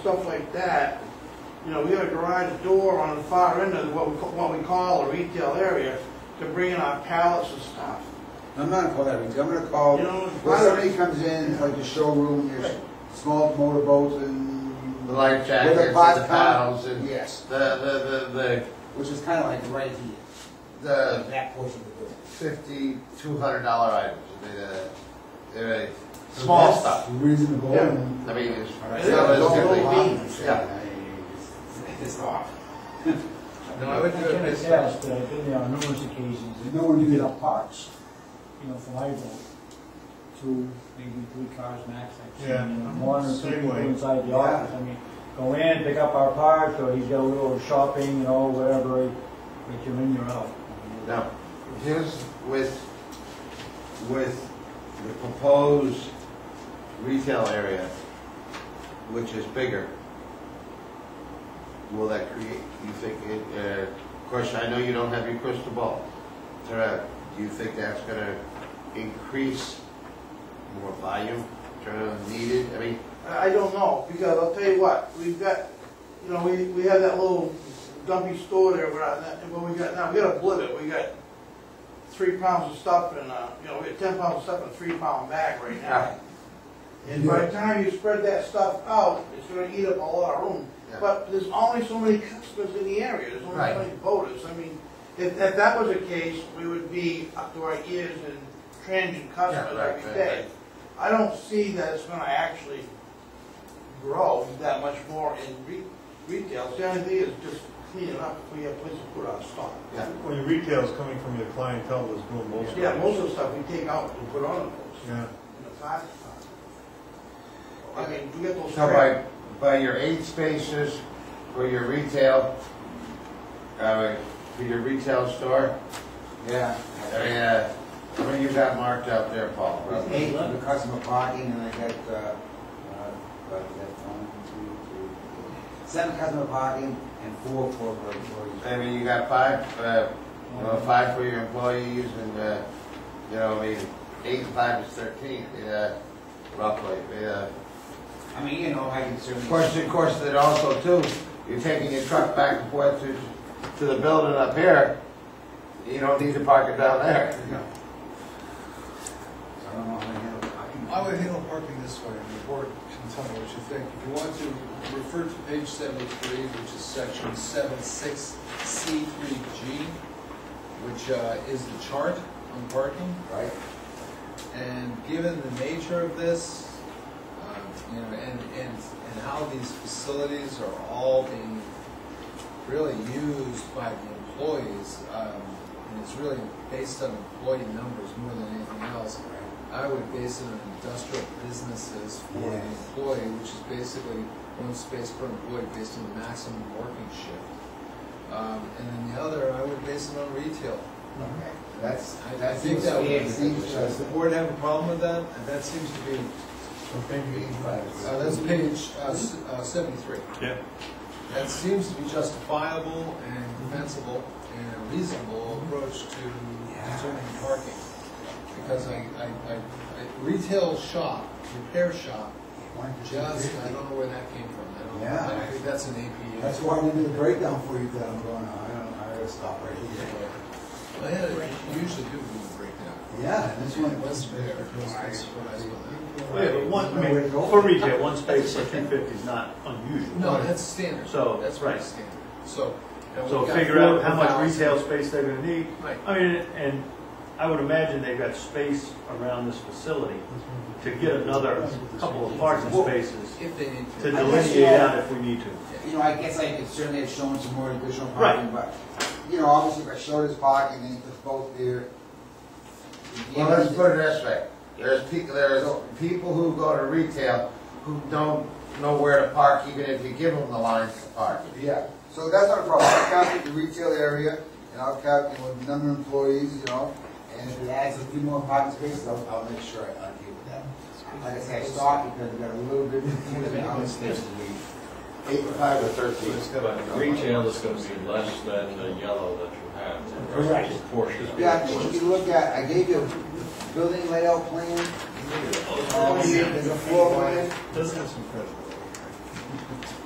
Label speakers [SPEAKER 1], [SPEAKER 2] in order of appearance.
[SPEAKER 1] stuff like that, you know, we have a garage door on the far end of what we, ca- what we call a retail area to bring in our pallets and stuff.
[SPEAKER 2] I'm not gonna call that retail, I'm gonna call,
[SPEAKER 1] You know,
[SPEAKER 2] when somebody comes in, like a showroom, there's small motorboats and.
[SPEAKER 3] The life jackets,
[SPEAKER 2] With a
[SPEAKER 3] the
[SPEAKER 2] vodka-
[SPEAKER 3] towels, and-
[SPEAKER 2] Yes,
[SPEAKER 3] The, the, the,
[SPEAKER 2] which is kinda like right here,
[SPEAKER 3] the, the
[SPEAKER 2] that portion of the building.
[SPEAKER 3] fifty, two hundred dollar items, they're, they're small
[SPEAKER 2] So that's
[SPEAKER 3] stuff.
[SPEAKER 2] Reasonable.
[SPEAKER 1] Yeah.
[SPEAKER 3] I mean, it's,
[SPEAKER 2] All right,
[SPEAKER 3] it's
[SPEAKER 1] Yeah, it's
[SPEAKER 3] not as
[SPEAKER 2] don't
[SPEAKER 3] good
[SPEAKER 2] go
[SPEAKER 3] as-
[SPEAKER 2] on and say,
[SPEAKER 3] yeah.
[SPEAKER 2] I- It's off.
[SPEAKER 3] No, I would
[SPEAKER 4] I
[SPEAKER 3] do
[SPEAKER 4] can
[SPEAKER 3] it this
[SPEAKER 4] attest that I've been there on numerous occasions, and,
[SPEAKER 2] No one do it on parts.
[SPEAKER 4] you know, from Ivo, two, maybe three cars max, I've seen,
[SPEAKER 5] Yeah,
[SPEAKER 4] and one or two
[SPEAKER 5] same
[SPEAKER 4] people
[SPEAKER 5] way.
[SPEAKER 4] inside the
[SPEAKER 2] Yeah.
[SPEAKER 4] office, I mean, go in, pick up our parts, or he's got a little shopping, you know, whatever, but you're in, you're out.
[SPEAKER 3] Now, here's with, with the proposed retail area, which is bigger, will that create, you think, it, uh, of course, I know you don't have your crystal ball. Tara, do you think that's gonna increase more volume, turn needed, I mean,
[SPEAKER 1] I I don't know, because I'll tell you what, we've got, you know, we, we have that little dumpy store there, we're not, and what we got now, we got a blivet, we got three pounds of stuff in, uh, you know, we got ten pounds of stuff in a three pound bag right now. And by the time you spread that stuff out, it's gonna eat up a lot of room.
[SPEAKER 3] Yeah.
[SPEAKER 1] But there's only so many customers in the area, there's only
[SPEAKER 3] Right.
[SPEAKER 1] so many voters, I mean, if, if that was the case, we would be up to our ears in transient customers
[SPEAKER 3] right,
[SPEAKER 1] every
[SPEAKER 3] right,
[SPEAKER 1] day.
[SPEAKER 3] right.
[SPEAKER 1] I don't see that it's gonna actually grow that much more in re- retail, the only thing is just clean it up, if we have places to put our stock.
[SPEAKER 3] yeah,
[SPEAKER 5] Well, your retail's coming from your clientele that's doing most of it.
[SPEAKER 1] Yeah, most of the stuff we take out and put on the books,
[SPEAKER 5] Yeah,
[SPEAKER 1] in the past. I mean, we get those.
[SPEAKER 3] so by, by your eight spaces for your retail, uh, for your retail store,
[SPEAKER 2] Yeah.
[SPEAKER 3] I mean, uh, what do you got marked out there, Paul?
[SPEAKER 2] There's eight for the customer parking, and I got, uh, uh, what is that, one, two, three, four. Seven customer parking and four for, for
[SPEAKER 3] I
[SPEAKER 2] employees.
[SPEAKER 3] mean, you got five, uh, well, five for your employees and, uh, you know, I mean, eight and five is thirteen, uh, roughly, yeah.
[SPEAKER 2] I mean, you know, I can certainly.
[SPEAKER 3] Of course, of course, that also too, you're taking your truck back and forth to, to the building up here, you don't need to park it down there.
[SPEAKER 2] I don't know how to handle parking.
[SPEAKER 6] I would handle parking this way, and the board can tell me what you think. If you want to, refer to page seventy-three, which is section seven six C three G, which uh, is the chart on parking.
[SPEAKER 2] Right?
[SPEAKER 6] And given the nature of this, um, you know, and, and, and how these facilities are all being really used by the employees, um, and it's really based on employee numbers more than anything else, I would base it on industrial businesses for the
[SPEAKER 2] Yes.
[SPEAKER 6] employee, which is basically one space per employee based on the maximum working shift. Um, and then the other, I would base it on retail.
[SPEAKER 2] Okay. That's,
[SPEAKER 6] I- I
[SPEAKER 2] that
[SPEAKER 6] think
[SPEAKER 2] seems
[SPEAKER 6] that
[SPEAKER 2] to be,
[SPEAKER 6] would-
[SPEAKER 2] it seems
[SPEAKER 6] Does the
[SPEAKER 2] to.
[SPEAKER 6] board have a problem with that? That seems to be,
[SPEAKER 5] so maybe,
[SPEAKER 6] uh, that's page uh, s- uh, seventy-three.
[SPEAKER 5] yeah,
[SPEAKER 6] That seems to be justifiable and defensible and a reasonable approach to determining parking. Because I, I, I, I- retail shop, repair shop, just, I don't know where that came from. I don't,
[SPEAKER 2] Yeah.
[SPEAKER 6] I think that's an APU.
[SPEAKER 2] That's why we did the breakdown for you, that I'm going, I don't, I gotta stop right here.
[SPEAKER 6] Well, yeah, you usually do do a breakdown.
[SPEAKER 2] Yeah, this one.
[SPEAKER 6] It was fair, that's what I saw.
[SPEAKER 5] Yeah, but one, I mean, for retail, one space for two fifty is not unusual.
[SPEAKER 6] No, that's standard.
[SPEAKER 5] So,
[SPEAKER 6] That's
[SPEAKER 5] right.
[SPEAKER 6] pretty standard. So. and
[SPEAKER 5] So
[SPEAKER 6] we've got
[SPEAKER 5] figure out
[SPEAKER 6] four
[SPEAKER 5] how much
[SPEAKER 6] thousand.
[SPEAKER 5] retail space they're gonna need.
[SPEAKER 6] Right.
[SPEAKER 5] I mean, and I would imagine they've got space around this facility to get another couple of parking spaces
[SPEAKER 6] If they need
[SPEAKER 5] to
[SPEAKER 6] to.
[SPEAKER 5] delineate out if we need to.
[SPEAKER 2] You know, I guess I could certainly have shown some more additional
[SPEAKER 5] Right.
[SPEAKER 2] parking, but, you know, obviously if I showed his parking and he put both there.
[SPEAKER 3] Well, let's put it this way, there's people, there's people who go to retail who don't know where to park, even if you give them the lines to park.
[SPEAKER 2] Yeah, so that's not a problem, I'll calculate the retail area, and I'll calculate what the number of employees, you know, and if it adds a few more parking spaces, I'll, I'll make sure I deal with that. Like I said, I stopped because we got a little bit.
[SPEAKER 3] Eight, to five, or thirteen.
[SPEAKER 7] Retail is gonna be less than the yellow that you have.
[SPEAKER 4] Correct.
[SPEAKER 7] Portion.
[SPEAKER 2] Yeah, I think you can look at, I gave you a building layout plan,
[SPEAKER 7] Oh,
[SPEAKER 2] there's a floor plan.
[SPEAKER 6] Doesn't have some credit.